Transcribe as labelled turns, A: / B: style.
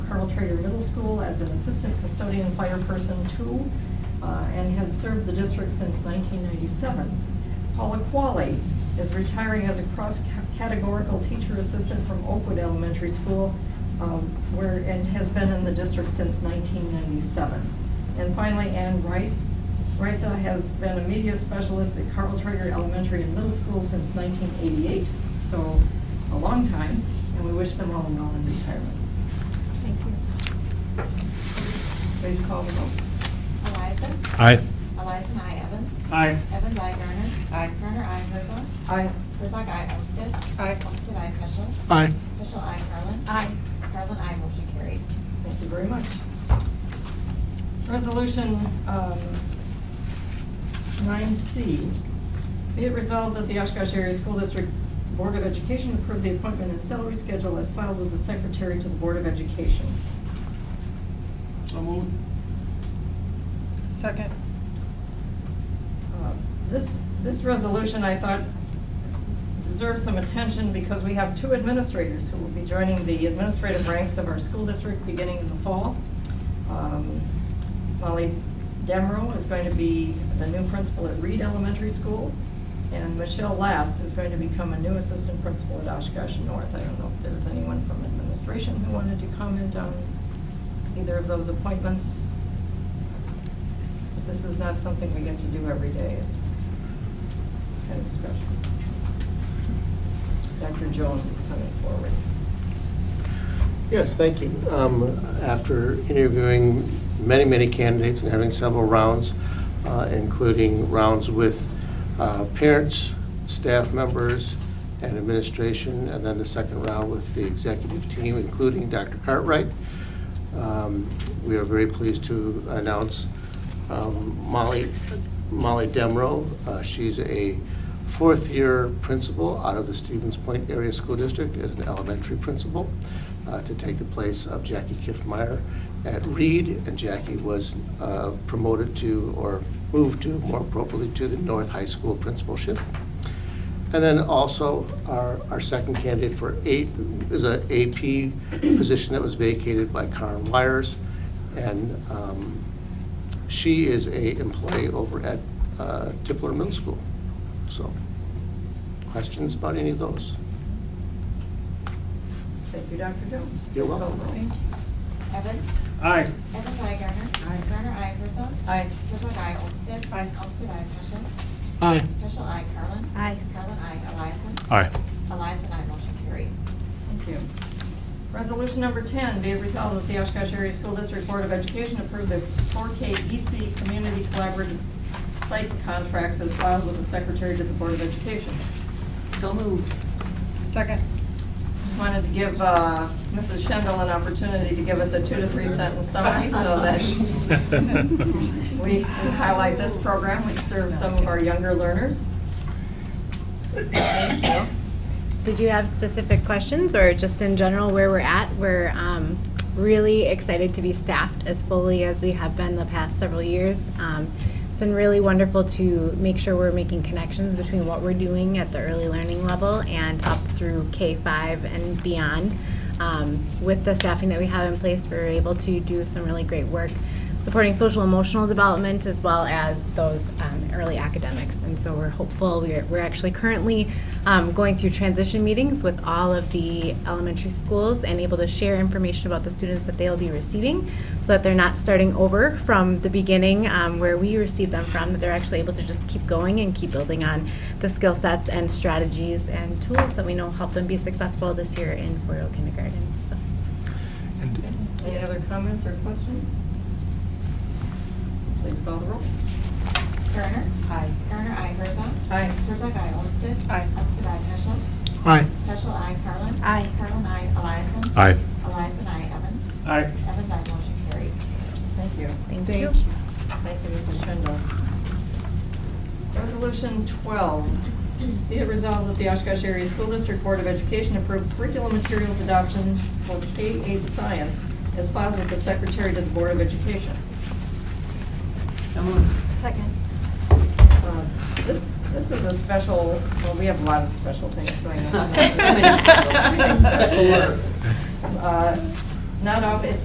A: Trader Middle School as an assistant custodian fire person two, uh, and has served the district since 1997. Paula Qualley is retiring as a cross-categorical teacher assistant from Oakwood Elementary School, um, where, and has been in the district since 1997. And finally, Ann Rice. Risa has been a media specialist at Carl Traeger Elementary and Middle School since 1988, so a long time, and we wish them all well in retirement. Thank you. Please call the roll.
B: Eliason.
C: Aye.
B: Eliason, I. Evans.
D: Aye.
B: Evans, I. Garner. Aye. Garner, I. Herzog.
A: Aye.
B: Herzog, I. Olmstead.
D: Aye.
B: Olmstead, I. Peschel.
C: Aye.
B: Peschel, I. Carlin.
A: Aye.
B: Carlin, I. Motion carried.
A: Thank you very much. Resolution um, 9C, be it resolved that the Oshkosh Area School District Board of Education approve the appointment and salary schedule as filed with the Secretary to the Board of Education.
D: So moved.
E: Second.
A: Uh, This, this resolution, I thought, deserves some attention because we have two administrators who will be joining the administrative ranks of our school district beginning in the fall. Um, Molly Demro is going to be the new principal at Reed Elementary School, and Michelle Last is going to become a new assistant principal at Oshkosh North. I don't know if there's anyone from administration who wanted to comment on either of those appointments. This is not something we get to do every day. It's kind of special. Dr. Jones is coming forward.
C: Yes, thank you. Um, After interviewing many, many candidates and having several rounds, uh, including rounds with uh, parents, staff members, and administration, and then the second round with the executive team, including Dr. Cartwright, um, we are very pleased to announce um, Molly, Molly Demro. Uh, She's a fourth-year principal out of the Stevens Point Area School District as an elementary principal uh, to take the place of Jackie Kiffmeyer at Reed. And Jackie was uh, promoted to, or moved to, more appropriately, to the North High School principalship. And then also, our, our second candidate for eight is a AP position that was vacated by Karen Wires. And um, she is a employee over at uh, Tippler Middle School. So, questions about any of those?
A: Thank you, Dr. Jones.
C: You're welcome.
A: Thank
B: Evans.
D: Aye.
B: Evans, I. Garner.
A: Aye.
B: Garner, I. Herzog.
A: Aye.
B: Herzog, I. Olmstead.
E: Aye.
B: Olmstead, I. Peschel.
C: Aye.
B: Peschel, I. Carlin.
A: Aye.
B: Carlin, I. Eliason.
C: Aye.
B: Eliason, I. Motion carried.
A: Thank you. Resolution number 10, be it resolved that the Oshkosh Area School District Board of Education approve the 4K EC Community Collaborative Site Contracts as filed with the Secretary to the Board of Education.
E: So moved. Second.
A: Just Wanted to give uh, Mrs. Schendel an opportunity to give us a two to three sentence summary so that We we highlight this program, which serves some of our younger learners.
F: Did you have specific questions or just in general where we're at? We're um, really excited to be staffed as fully as we have been the past several years. Um, It's been really wonderful to make sure we're making connections between what we're doing at the early learning level and up through K-5 and beyond. Um, With the staffing that we have in place, we're able to do some really great work supporting social emotional development as well as those um, early academics. And so we're hopeful, we're, we're actually currently um, going through transition meetings with all of the elementary schools and able to share information about the students that they'll be receiving so that they're not starting over from the beginning um, where we received them from, that they're actually able to just keep going and keep building on the skill sets and strategies and tools that we know help them be successful this year in four-year kindergarten. So.
A: Any other comments or questions? Please call the roll.
B: Garner.
E: Aye.
B: Garner, I. Herzog.
A: Aye.
B: Herzog, I. Olmstead.
E: Aye.
B: Olmstead, I. Peschel.
C: Aye.
B: Peschel, I. Carlin.
F: Aye.
B: Carlin, I. Eliason.
C: Aye.
B: Eliason, I. Evans.
D: Aye.
B: Evans, I. Motion carried.
A: Thank you.
F: Thank,
E: Thank
F: you.
A: Thank you, Mrs. Schindler. Resolution 12, be it resolved that the Oshkosh Area School District Board of Education approve curriculum materials adoption for K-8 science as filed with the Secretary to the Board of Education.
E: So moved.
A: Uh, This, this is a special, well, we have a lot of special things going on. Uh, It's not off, it's